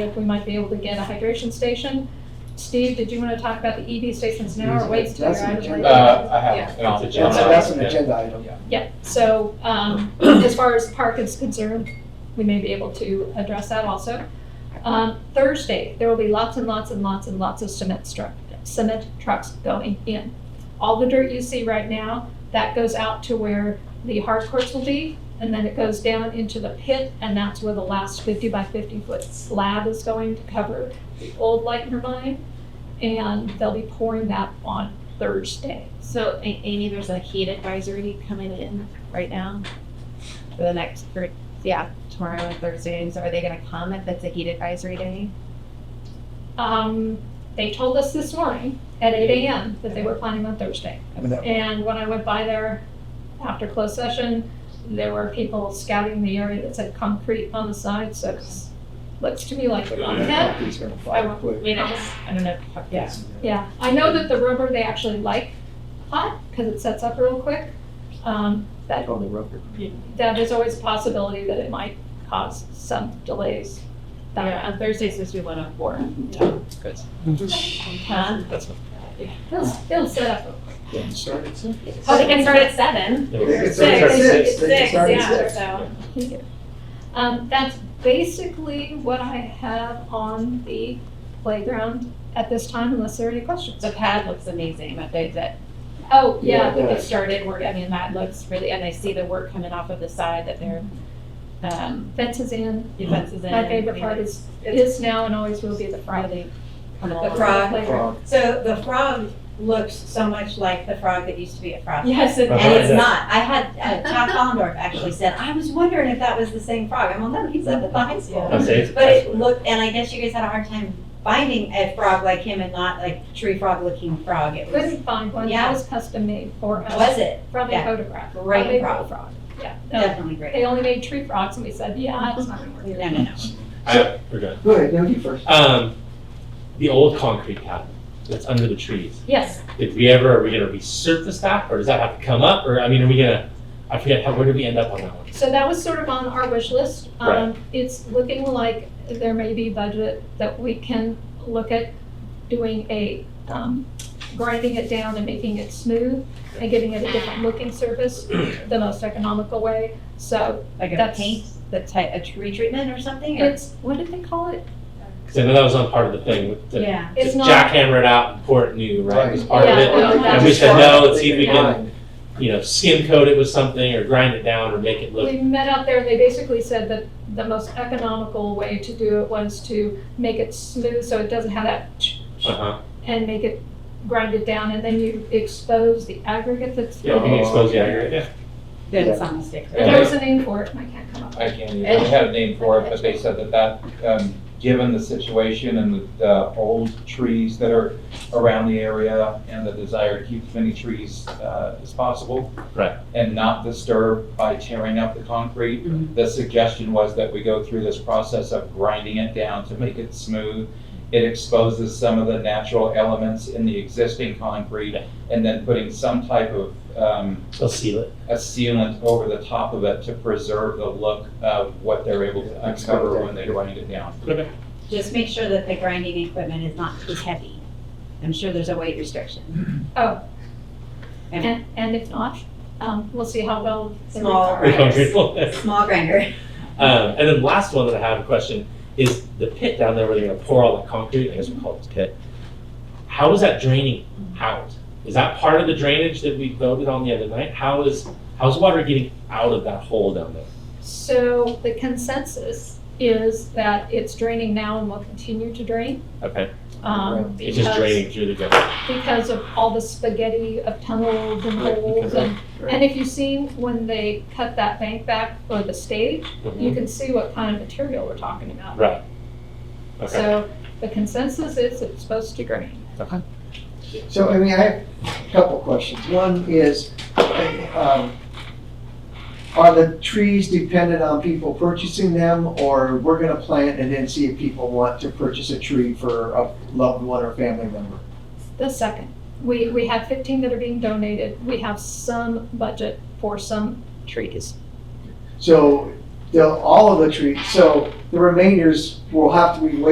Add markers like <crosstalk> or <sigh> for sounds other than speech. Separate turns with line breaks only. if we might be able to get a hydration station. Steve, did you want to talk about the EV stations now or wait till
That's
you're out of
an agenda.
Uh,
the
I have. and I'll-
That's, that's an agenda item.
Yeah, so um, as far as park is concerned, we may be able to address that also. Um, Thursday, there will be lots and lots and lots and lots of cement truck, cement trucks going in. All the dirt you see right now, that goes out to where the hard courts will be, and then it goes down into the pit, and that's where the last fifty by fifty foot slab is going to cover the old Lightner mine, and they'll be pouring that on Thursday.
So A- Amy, there's a heat advisory coming in right now for the next, for, yeah, tomorrow and Thursday. And So are they gonna comment that's a heat advisory day?
Um, they told us this morning at eight AM that they were planning on Thursday.
And that-
And when I went by there after closed session, there were people scouting the area that said concrete on the side, so it's, looks to me like they're on
that
that.
property's gonna
I
fly
won't- I
quick.
mean, I just, I don't know, yeah.
Yeah, I know that the rubber, they actually like hot, cause it sets up real quick. Um, that,
On the rubber.
that is always a possibility that it might cause some delays.
Yeah, on Thursday's supposed to be one oh four. Huh?
It'll, it'll set up real quick.
Yeah, start at six.
Oh, they can start at seven.
They can start
Six,
at
six,
six, they can start at
yeah,
six.
so.
Um, that's basically what I have on the playground at this time, unless there are any questions.
The pad looks amazing, that they, that,
Oh,
Yeah,
yeah,
that they
does.
started work, I mean, that looks really, and I see the work coming off of the side that they're, um,
fence is in.
defenses in.
My favorite part is, is now and always will be the Friday.
Friday. Come
The
along.
frog,
playground.
so the frog looks so much like the frog that used to be at Frog.
Yes, it
Uh-huh.
And it's
is.
not. I had, uh, Todd Collendorf actually said, I was wondering if that was the same frog. I'm well, no, he's up at the high school.
I'll say it's-
But it looked, and I guess you guys had a hard time finding a frog like him and not like tree frog looking frog. It was,
Couldn't find one, that
Yeah.
was custom made for us.
was it?
From a
Yeah.
photograph.
Great
From a
frog.
Frog, yeah. No,
Definitely great.
They only made tree frogs and we said, yeah, it's not gonna work.
No, no, no.
I- We're good.
Go ahead, no, you first.
Um, the old concrete pad that's under the trees,
Yes,
did we ever, are we gonna resurface that, or does that have to come up, or, I mean, are we gonna, I forget, how, where did we end up on that one?
so that was sort of on our wish list. Um, It's looking like there may be budget that we can look at doing a, um, grinding it down and making it smooth and giving it a different looking surface, the most economical way. So
Like a
That's-
paint, the type, a tree
Retreatment or something? or-
it's, what did they call it?
Cause I know that was on part of the thing, with the,
Yeah.
It's
just
not,
jackhammer it out and pour it new, right, It was part of
Yeah.
it,
well,
and we said, no, let's see if we can,
Fine.
you know, skim coat it with something, or grind it down, or make it look,
we met out there and they basically said that the most economical way to do it was to make it smooth so it doesn't have that ch- ch-
uh-huh,
and make it grind it down and then you expose the aggregate that's.
yeah, we can expose the aggregate, yeah.
that's on the stick.
There was a name for it, and I can't come up.
I can't even, I had a name for it, but they said that that, um, given the situation and the, the old trees that are around the area and the desire to keep as many trees, uh, as possible.
Right.
And not disturb by tearing up the concrete.
Mhm.
The suggestion was that we go through this process of grinding it down to make it smooth. It exposes some of the natural elements in the existing concrete
Yeah.
and then putting some type of, um,
They'll seal it,
a sealant over the top of it to preserve the look of what they're able to uncover when they grind it down.
okay,
Just make sure that the grinding equipment is not too heavy. I'm sure there's a weight restriction.
Oh.
And-
And, and if not, um, we'll see how well. they
Small.
recover.
pretty <laughs> comfortable.
Small grinder.
Um, and then last one that I have a question is the pit down there where they're gonna pour all the concrete, I guess we call it a pit. How is that draining out? Is that part of the drainage that we voted on the other night? How is, how's water getting out of that hole down there?
So the consensus is that it's draining now and will continue to drain.
Okay,
um,
it's just
because-
draining through the gutter.
Because of all the spaghetti of tunnels and
Right,
holes
because
and,
of-
and if you've seen when they cut that bank back or the stage,
Mm-hmm.
you can see what kind of material we're talking about.
Right. Okay,
So the consensus is it's supposed to drain.
So, I mean, I have a couple questions. One is, um, are the trees dependent on people purchasing them, or we're gonna plant and then see if people want to purchase a tree for a loved one or family member?
The second, we, we have fifteen that are being donated. We have some budget for some trees.
So, they'll, all of the trees, so the remainders will have to be waited